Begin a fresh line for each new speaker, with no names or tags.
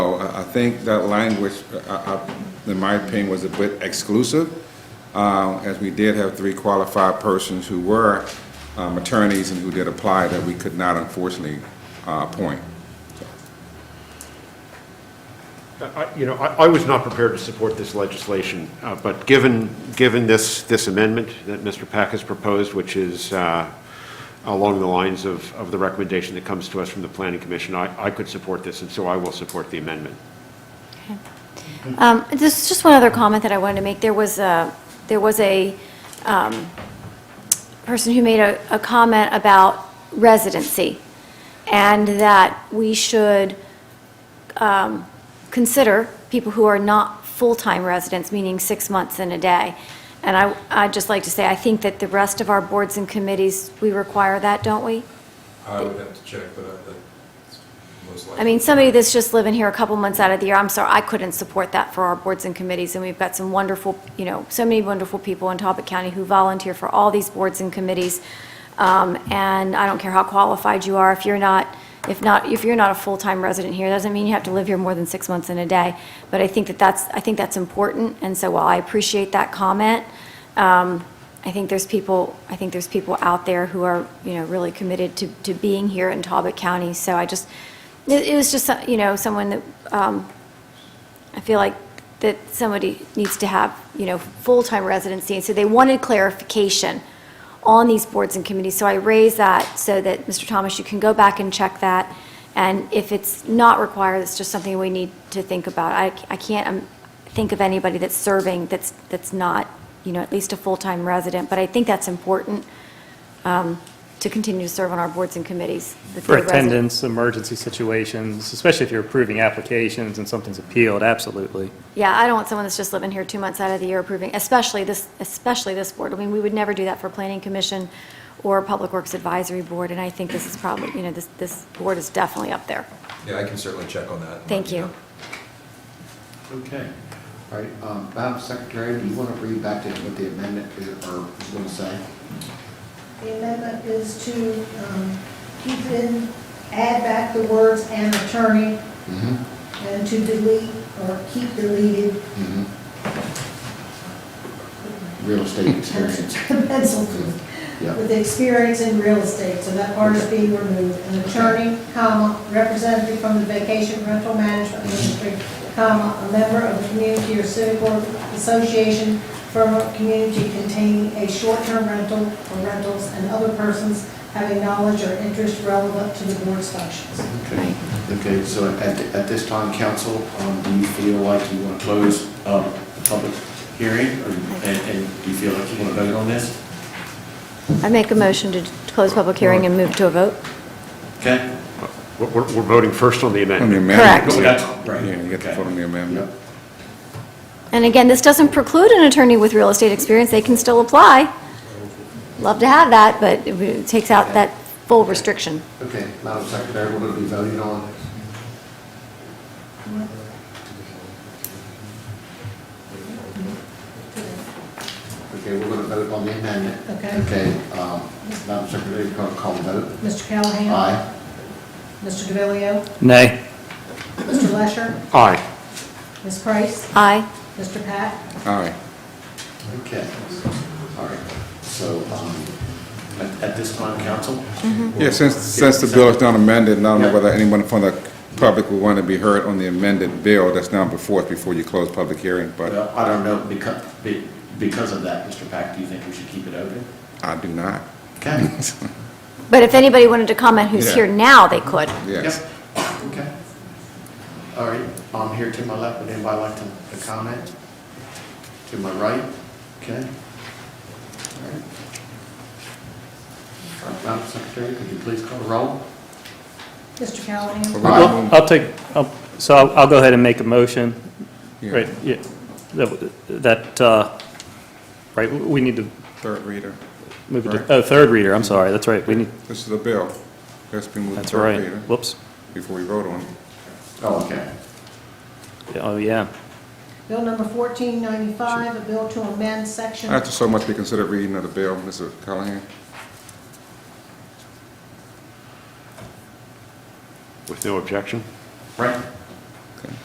I, I think that language, I, I, in my opinion, was a bit exclusive, uh, as we did have three qualified persons who were, um, attorneys and who did apply that we could not unfortunately, uh, appoint.
I- You know, I I was not prepared to support this legislation, uh, but given, given this, this amendment that Mr. Pack has proposed, which is uh, along the lines of, of the recommendation that comes to us from the Planning Commission, I, I could support this, and so I will support the amendment.
Um, There's just one other comment that I wanted to make. There was a, there was a um, person who made a, a comment about residency, and that we should um, consider people who are not full-time residents, meaning six months and a day. And I, I'd just like to say, I think that the rest of our boards and committees, we require that, don't we?
I would have to check, but I- that's most likely.
I mean, somebody that's just living here a couple months out of the year, I'm sorry, I couldn't support that for our boards and committees, and we've got some wonderful, you know, so many wonderful people in Talbot County who volunteer for all these boards and committees. Um, And I don't care how qualified you are, if you're not, if not, if you're not a full-time resident here, doesn't mean you have to live here more than six months in a day. But I think that that's, I think that's important, and so while I appreciate that comment, um, I think there's people, I think there's people out there who are, you know, really committed to, to being here in Talbot County. So I just, it, it was just, so- you know, someone that, um, I feel like that somebody needs to have, you know, full-time residency. And so they wanted clarification on these boards and committees. So I raised that so that, Mr. Thomas, you can go back and check that. And if it's not required, it's just something we need to think about. I, I can't um, think of anybody that's serving that's, that's not, you know, at least a full-time resident. But I think that's important um, to continue to serve on our boards and committees. that
For
they're resident-
attendance, emergency situations, especially if you're approving applications and something's appealed, absolutely.
Yeah, I don't want someone that's just living here two months out of the year approving, especially this, especially this board. I mean, we would never do that for Planning Commission or Public Works Advisory Board, and I think this is probably, you know, this, this board is definitely up there.
Yeah, I can certainly check on that. and let
Thank you.
know.
Okay. All right, um, Madam Secretary, do you want to read back to him what the amendment is, or is going to say?
The amendment is to um, keep in, add back the words "and attorney"
Mm-hmm.
and to delete or keep deleted
Mm-hmm. Real estate experience.
pencil
Yeah,
with experience in real estate, so that part is being removed. An attorney, comma, representative from the vacation rental management industry, comma, a member of a community or civic or association from a community containing a short-term rental or rentals and other persons having knowledge or interest relevant to the board's functions.
okay. Okay, so at, at this time, council, um, do you feel like you want to close, um, the public hearing? or- And, and do you feel like you want to vote on this?
I make a motion to close public hearing and move to a vote.
Okay?
We're, we're we're voting first on the
On the
amendment.
amendment.
Correct.
We got-
Yeah,
right,
you get to
okay.
vote on the amendment.
Yep.
And again, this doesn't preclude an attorney with real estate experience, they can still apply. Love to have that, but it would- it takes out that full restriction.
Okay, Madam Secretary, we're going to be voting on. Okay, we're going to vote on the amendment.
Okay.
Okay, um, Madam Secretary, you're going to call the vote.
Mr. Callahan?
Aye.
Mr. DeVilleo?
Nay.
Mr. Lesher?
Aye.
Ms. Price?
Aye.
Mr. Pat?
Aye.
Okay, all right. So um, at at this time, council?
Yeah, since, since the bill is not amended, and I don't know
Yeah.
whether anyone from the public would want to be heard on the amended bill that's now before us, before you close public hearing, but
Well, I don't know, because, because of that, Mr. Pack, do you think we should keep it open?
I do not.
Okay.
But if anybody wanted to comment who's
Yeah.
here now, they could.
Yes.
Yep. Okay. All right, I'm here to my left, would anybody like to to comment? To my right, okay? All right. All right, Madam Secretary, could you please call the roll?
Mr. Callahan?
Well, I'll take, I'll- so I'll I'll go ahead and make a motion.
Yeah.
Right, yeah, that- that, uh, right, we need to
Third reader.
move it
Right.
to, oh, third reader, I'm sorry, that's right, we need,
This is a bill. That's been moved to
that's
third
right,
reader
whoops,
before we vote on it.
Oh, okay.
oh, yeah.
Bill number 1495, a bill to amend section,
After so much, we consider reading of the bill, Mr. Callahan.
With no objection?
Right,